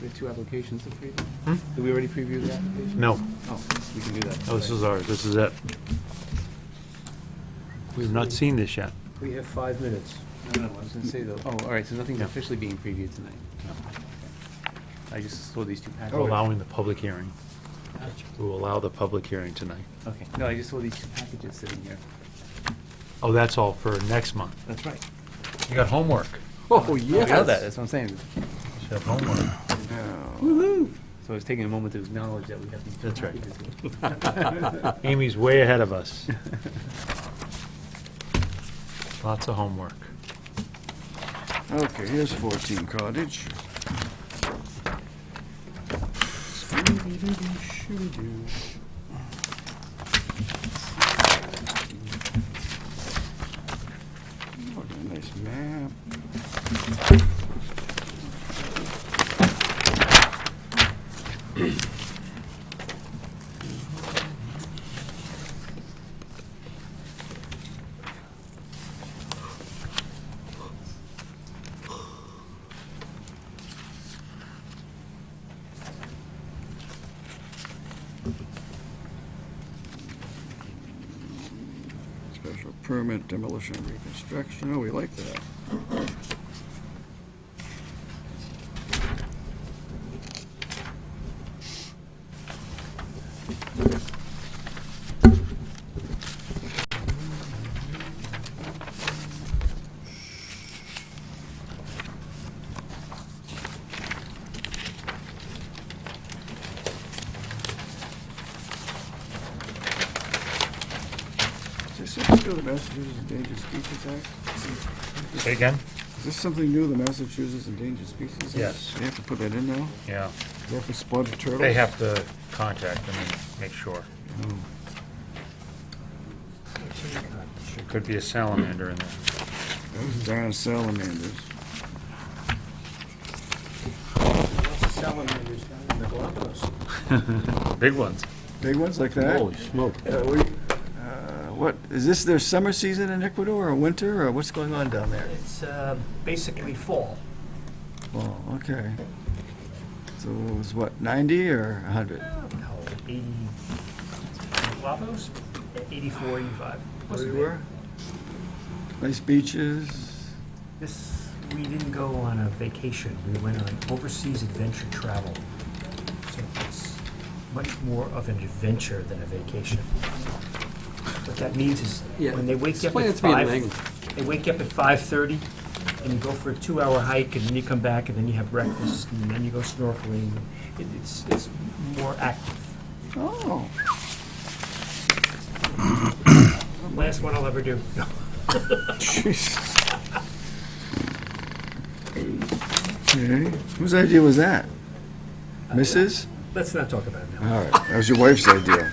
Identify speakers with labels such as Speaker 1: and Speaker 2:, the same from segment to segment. Speaker 1: the two applications to preview? Did we already preview the application?
Speaker 2: Hmm? No,
Speaker 1: Oh, we can do that.
Speaker 2: no, this is ours, this is it. We've not seen this yet.
Speaker 3: We have five minutes.
Speaker 1: No, no, I was gonna say though, oh, all right, so nothing's
Speaker 2: Yeah.
Speaker 1: officially being previewed tonight. I just saw these two
Speaker 2: We're
Speaker 1: packages.
Speaker 2: allowing the public hearing. We'll allow the public hearing tonight.
Speaker 1: Okay, no, I just saw these two packages sitting here.
Speaker 2: Oh, that's all for next month.
Speaker 1: That's right.
Speaker 2: You got homework.
Speaker 1: Oh, yeah. I know that, that's what I'm saying.
Speaker 2: You have homework.
Speaker 1: So I was taking a moment to acknowledge that we have these two
Speaker 2: That's right.
Speaker 1: packages here.
Speaker 2: Amy's way ahead of us. Lots of homework.
Speaker 4: Okay, here's 14 Cottage. What a nice map. Special permit demolition and reconstruction, oh, we like that. Is this something new, the Massachusetts Endangered Species Act?
Speaker 2: Say again?
Speaker 4: Is this something new, the Massachusetts Endangered Species Act?
Speaker 2: Yes.
Speaker 4: They have to put that in now?
Speaker 2: Yeah,
Speaker 4: Is that for spotted turtles?
Speaker 2: have to contact them and make sure.
Speaker 4: Oh,
Speaker 2: There could be a salamander in there.
Speaker 4: Those darn salamanders.
Speaker 3: Salamanders down in the Galapagos.
Speaker 2: Big ones.
Speaker 4: Big ones like that?
Speaker 2: smoke.
Speaker 4: Uh, we- uh, What, is this their summer season in Ecuador, or winter, or what's going on down there?
Speaker 3: It's uh, basically fall.
Speaker 4: Oh, okay. So it was what, 90 or 100?
Speaker 3: No, 80, Galapagos, 84, 85.
Speaker 4: Where you were? Nice beaches.
Speaker 3: This, we didn't go on a vacation, we went on overseas adventure travel. So it's much more of an adventure than a vacation. What that means is,
Speaker 1: Yeah,
Speaker 3: when they wake up
Speaker 1: explain
Speaker 3: at
Speaker 1: it to me in
Speaker 3: five,
Speaker 1: language.
Speaker 3: they wake up at five-thirty, and you go for a two-hour hike, and then you come back, and then you have breakfast, and then you go snorkeling. It- It's, it's more active.
Speaker 4: Oh,
Speaker 3: Last one I'll ever do.
Speaker 4: jeez. Okay, whose idea was that? Mrs.?
Speaker 3: Let's not talk about it now.
Speaker 4: All right, that was your wife's idea.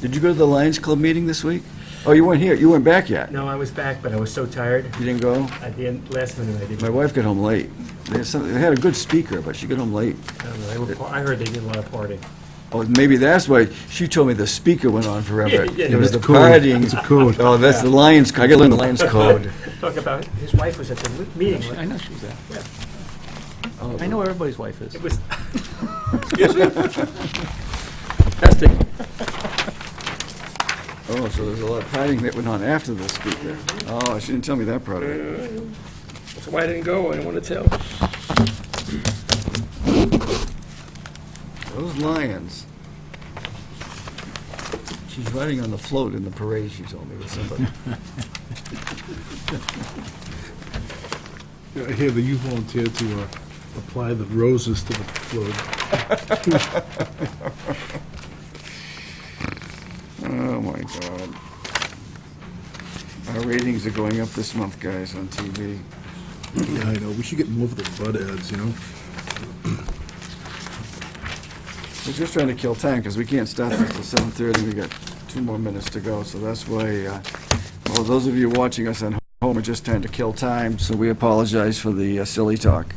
Speaker 4: Did you go to the Lions Club meeting this week? Oh, you weren't here, you weren't back yet?
Speaker 3: No, I was back, but I was so tired,
Speaker 4: You didn't go?
Speaker 3: at the end, last minute I didn't.
Speaker 4: My wife got home late. They had some- they had a good speaker, but she got home late.
Speaker 3: I don't know, they were par- I heard they did a lot of partying.
Speaker 4: Oh, maybe that's why, she told me the speaker went on forever.
Speaker 3: Yeah, yeah,
Speaker 4: It was the
Speaker 3: that's
Speaker 4: partying. Oh, that's the Lions, co- I gotta learn the Lions code.
Speaker 3: Talk about, it. his wife was at the li- meeting.
Speaker 1: I
Speaker 3: right?
Speaker 1: know she was there.
Speaker 3: Yeah.
Speaker 4: Oh,
Speaker 1: I know where everybody's wife is.
Speaker 3: It was,
Speaker 1: Testing.
Speaker 4: Oh, so there's a lot of hiding that went on after the speaker. Oh, she didn't tell me that part of it.
Speaker 5: That's why I didn't go, I didn't want to tell.
Speaker 4: Those lions. She's riding on the float in the parade, she told me, with somebody.
Speaker 6: I hear that you volunteered to uh, apply the roses to the flood.
Speaker 4: Oh, my God. Our ratings are going up this month, guys, on TV.
Speaker 6: Yeah, I know, we should get more of the bud ads, you know?
Speaker 4: We're just trying to kill time, because we can't stop until seven thirty, we got two more minutes to go, so that's why, uh, well, those of you watching us at home are just trying to kill time, so we apologize for the uh, silly talk.